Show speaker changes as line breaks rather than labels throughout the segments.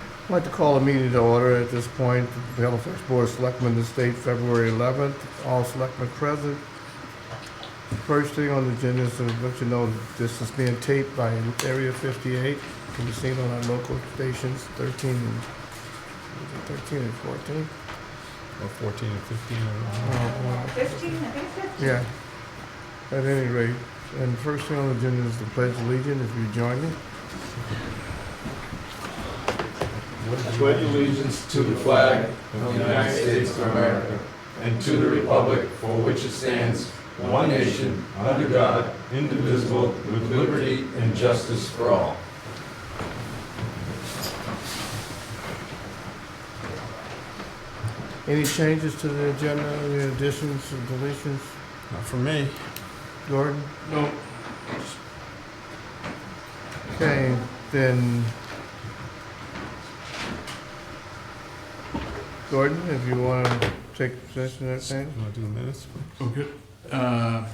I'd like to call a meeting to order at this point. The Halifax Board of Selectmen this date, February 11th. All selectmen present. First thing on the agenda is to let you know that this is being taped by Area 58. Can be seen on our local stations, 13 and 13 and 14.
Or 14 and 15, I
Oh,
don't know.
wow.
Fifteen, I think fifteen.
Yeah. At any rate, and first thing on the agenda is the pledge of allegiance. If you join me.
I pledge allegiance to the flag of the United States of America and to the republic for which it stands, one nation, under God, indivisible, with liberty and justice for all.
Any changes to the agenda, any additions or deletions?
Not for me.
Gordon? No. Okay, then. Gordon, if you want to take possession of that thing?
Want to do the minutes?
Okay. Oh, Uh,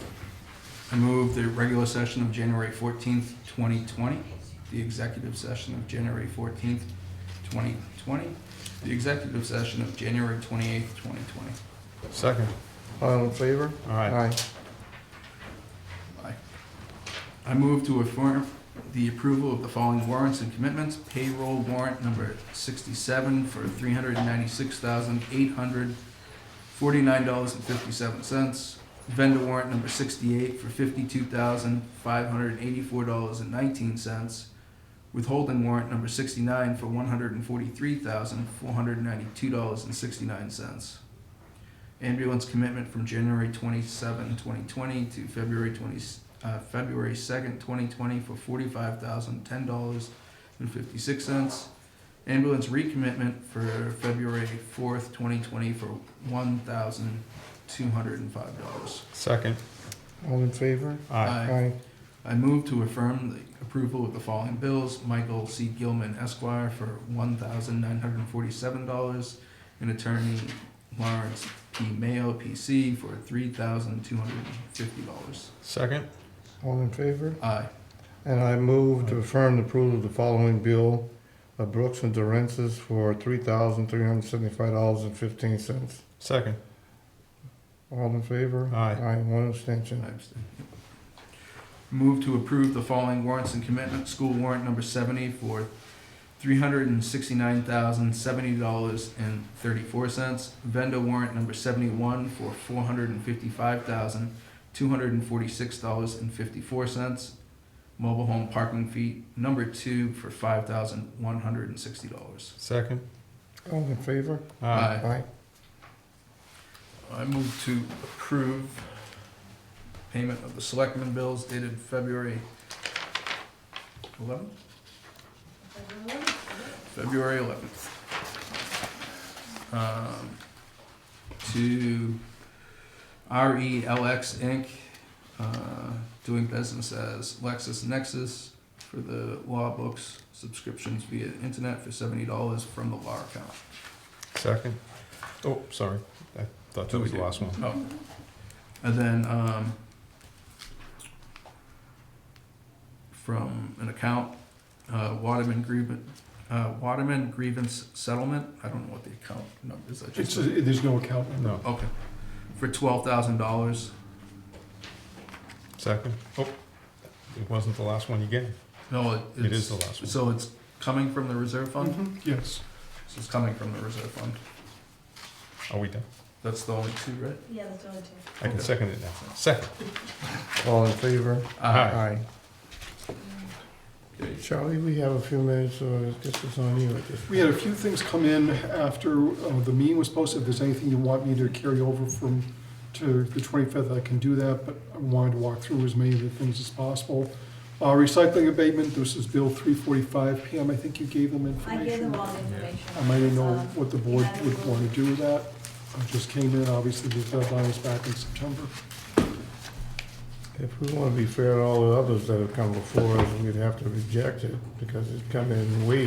I move the regular session of January 14th, 2020, the executive session of January 14th, 2020, the executive session of January 28th, 2020.
Second.
All in favor?
All right.
Aye. I move to affirm the approval of the following warrants and commitments. Payroll warrant number 67 for $396,849.57. Vendor warrant number 68 for $52,584.19. Withholding warrant number 69 for $143,492.69 ambulance commitment from January 27, 2020 to February 20, uh, February 2nd, 2020 for $45,010.56. Ambulance recommitment for February 4th, 2020 for $1,205.
Second.
All in favor?
Aye.
Aye.
I move to affirm the approval of the following bills. Michael C. Gilman Esquire for one thousand nine hundred and forty-seven dollars and attorney Lawrence P. Mayo, PC, for three thousand two hundred and fifty dollars.
Second.
All in favor?
Aye.
And I move to affirm the approval of the following bill of Brooks and Durensis for three thousand three hundred seventy-five dollars and fifteen cents.
Second.
All in favor?
Aye.
Aye, one abstention.
I abstain. Move to approve the following warrants and commitment, school warrant number seventy for three hundred and sixty-nine thousand, seventy dollars and thirty-four cents. Vendor warrant number seventy-one for four hundred and fifty-five thousand, two hundred and forty-six dollars and fifty-four cents. Mobile home parking fee number two for five thousand, one hundred and sixty dollars.
Second.
All in favor?
Aye.
Aye.
I move to approve payment of the selectmen bills dated February eleventh? February eleventh. Um, to RELX Inc., uh, doing business as Lexus Nexus for the law books subscriptions via internet for seventy dollars from the law account.
Second. Oh, sorry. I thought that was the last one.
Oh. And then, um, from an account, uh, Waterman grievance, uh, Waterman grievance settlement, I don't know what the account number is, I
It's, uh,
just,
there's no account number.
No.
okay, for twelve thousand dollars.
Second. Oh, it wasn't the last one you gave.
No, it
It is
it's-
the last one. Mm-hmm.
So it's coming from the reserve fund?
Yes.
So it's coming from the reserve fund,
Are we done?
that's the only two, right?
Yeah, that's only two.
I can
Okay.
second it now. Second.
All in favor?
Aye.
Aye.
Okay.
Charlie, we have a few minutes, so this is on you at this point.
We had a few things come in after uh, the meeting was posted. If there's anything you want me to carry over from, to the 25th, I can do that, but I wanted to walk through as many of the things as possible. Uh, Recycling abatement, this is Bill 345. Pam, I think you gave them information.
I gave them all the information.
I might not know
Um,
what the board would want to do with that. I just came in, obviously, the deadline is back in September.
If we want to be fair to all the others that have come before us, we'd have to reject it because it's come in weak.